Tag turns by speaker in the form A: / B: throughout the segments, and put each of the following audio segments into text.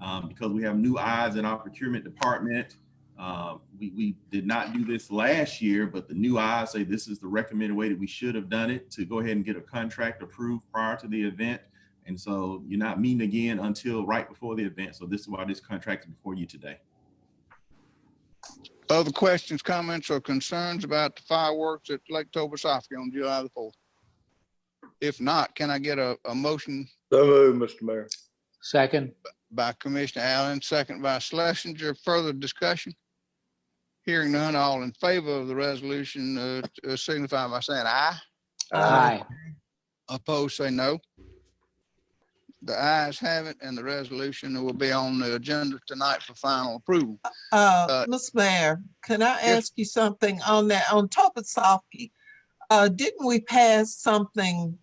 A: um, because we have new eyes in our procurement department. Uh, we, we did not do this last year, but the new eyes say this is the recommended way that we should have done it to go ahead and get a contract approved prior to the event. And so you're not meeting again until right before the event. So this is why this contract is before you today.
B: Other questions, comments, or concerns about the fireworks at Lake Tobosoffke on July the fourth? If not, can I get a, a motion
C: So moved, Mr. Mayor.
D: Second,
B: by Commissioner Allen, second by Schlesinger, further discussion? Hearing none, all in favor of the resolution, uh, uh, signify by saying aye.
E: Uh,
D: aye.
B: Opposed, say no. The ayes have it, and the resolution will be on the agenda tonight for final approval. Uh,
E: Uh, Ms. Mayor, can I
B: yes.
E: ask you something on that, on Toposophy? Uh, didn't we pass something,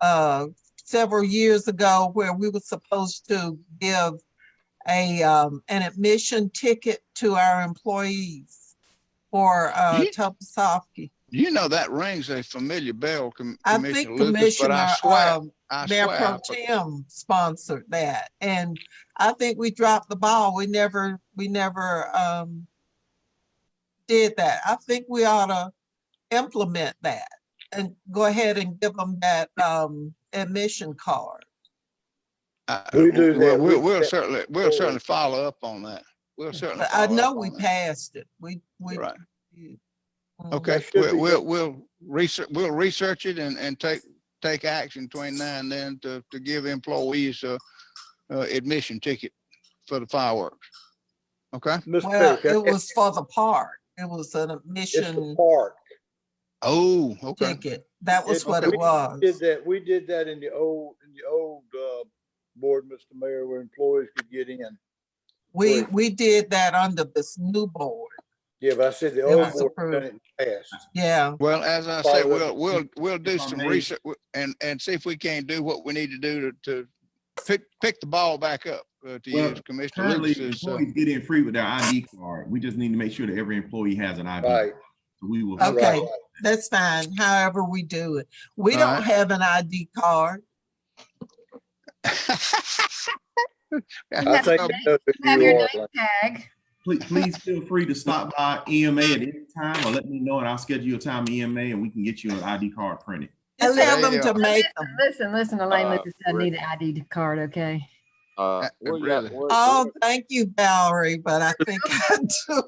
E: uh, several years ago where we were supposed to give a, um, an admission ticket to our employees for, uh,
B: Ye-
E: Toposophy?
B: You know, that rings a familiar bell, Com-
E: I
B: Commissioner
E: think
B: Lucas, but
E: Commissioner,
B: I swear,
E: um,
B: I
E: Mayor
B: swear.
E: Pro
B: I
E: Tem sponsored that, and I think we dropped the ball. We never, we never, um, did that. I think we ought to implement that and go ahead and give them that, um, admission card.
B: I-
C: We do
B: Well,
C: that.
B: Uh, we'll,
C: We
B: we'll
C: step
B: certainly, we'll
C: forward.
B: certainly follow up on that. We'll certainly.
E: But I
B: follow
E: know
B: up
E: we
B: on that.
E: passed it. We, we.
B: Right,
E: Mm.
B: okay,
C: should
B: we'll,
C: be
B: we'll, we'll research, we'll research it and, and take, take action between now and then to, to give employees a, uh admission ticket for the fireworks. Okay?
C: Mr.
E: Well,
C: Mayor,
E: it
C: can I-
E: was for the park. It was an
C: it's the
E: admission
C: park.
B: Oh, okay.
E: ticket. That was
C: It's-
E: what it
C: we
E: was.
C: Did that, we did that in the old, in the old, uh, board, Mr. Mayor, where employees could get in.
E: We,
C: Right.
E: we did that under this new board.
C: Yeah, but I said the
E: It
C: old
E: was
C: board done it in the past.
E: Yeah,
B: Well, as I said,
C: Follow
B: we'll,
C: up.
B: we'll, we'll do
A: If I
B: some
A: may.
B: research and, and see if we can do what we need to do to, to pick, pick the ball back up, uh, to
A: Well,
B: use Commissioner
A: Currently,
B: Lucas's. uh,
A: employees get in free with their ID card. We just need to make sure that every employee has an ID.
C: Right.
A: We will.
E: Okay.
C: right.
E: that's fine, however we do it. We don't
B: Alright.
E: have an ID card.
C: I
F: Have
C: think
F: your
C: I know who
F: Have
C: you
F: your
C: are,
F: name tag.
A: Please, please feel free to stop by EMA at any time or let me know and I'll schedule you a time EMA and we can get you an ID card printed.
E: Just have
B: There
E: them
B: you
E: to make them.
F: Listen, listen, Elaine
G: Uh,
F: Lucas doesn't need an ID card, okay?
G: Uh,
B: Uh,
G: we
B: really?
G: got, we-
E: Oh, thank you, Valerie, but I think I do.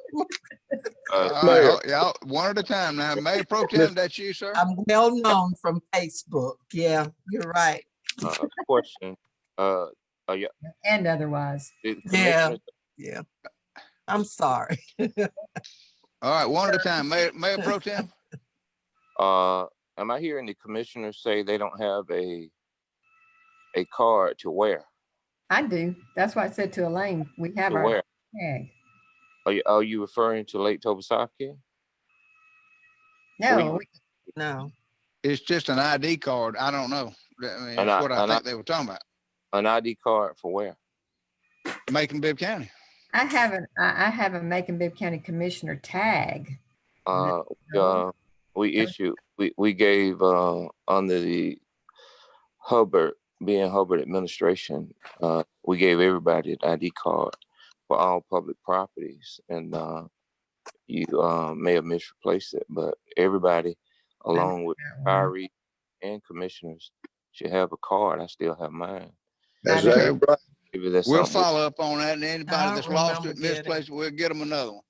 G: uh,
B: All right, y'all, one at a time now. Mayor Pro Tem, that's you, sir?
E: I'm well known from Facebook. Yeah, you're right.
G: uh, question, uh,
F: And otherwise.
G: did
E: Yeah.
G: Commissioner-
E: Yeah. I'm sorry.
B: All right, one at a time. Mayor, Mayor Pro Tem?
G: Uh, am I hearing the commissioners say they don't have a, a card to wear?
F: I do. That's why I said to Elaine, we have
G: To
F: our
G: wear?
F: tag.
G: Are you, are you referring to Lake Tobosaki?
F: No, we-
E: No.
B: It's just an ID card. I don't know. I mean,
G: And I-
B: that's what I
G: and I-
B: think they were talking about,
G: An ID card for where?
B: Macon Bibb County.
F: I haven't, I, I have a Macon Bibb County Commissioner tag.
G: Uh,
F: no.
G: uh, we issued, we, we gave, uh, under the Hubbard, being Hubbard administration, uh, we gave everybody an ID card for all public properties and, uh, you, uh, may have misplaced it, but everybody along
B: Mm-hmm.
G: with
F: That one.
G: retirees and commissioners should have a card. I still have mine.
C: That's
B: Okay.
C: right.
G: Maybe that's
B: We'll
G: something we-
B: follow up on that and anybody
E: I
B: that's lost
E: remember
B: it,
E: getting it.
B: misplaced, we'll get them another one.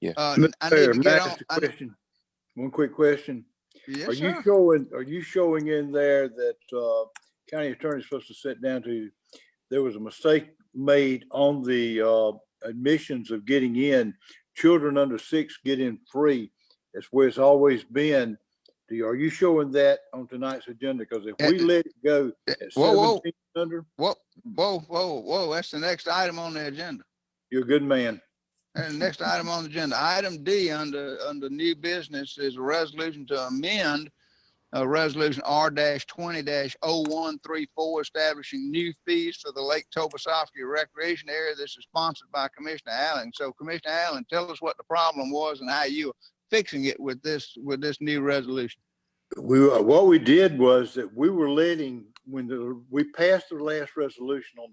G: Yeah.
B: Uh,
C: Mr.
B: I need
C: Mayor,
B: to
C: may I
B: get on.
C: ask a
B: I-
C: question? One quick question. Are
B: Yes,
C: you
B: sir.
C: showing, are you showing in there that, uh, county attorney's supposed to sit down to, there was a mistake made on the, uh, admissions of getting in. Children under six get in free. That's where it's always been. Do you, are you showing that on tonight's agenda? Because if we
B: Uh,
C: let it go
B: uh,
C: at
B: whoa, whoa.
C: seventeen under,
B: Whoa, whoa, whoa, whoa. That's the next item on the agenda.
C: you're a good man.
B: And the next item on the agenda, item D under, under new business is a resolution to amend uh, resolution R twenty oh 134 establishing new fees for the Lake Tobosoffke Recreation Area. This is sponsored by Commissioner Allen. So Commissioner Allen, tell us what the problem was and how you are fixing it with this, with this new resolution.
C: We, what we did was that we were letting, when the, we passed the last resolution on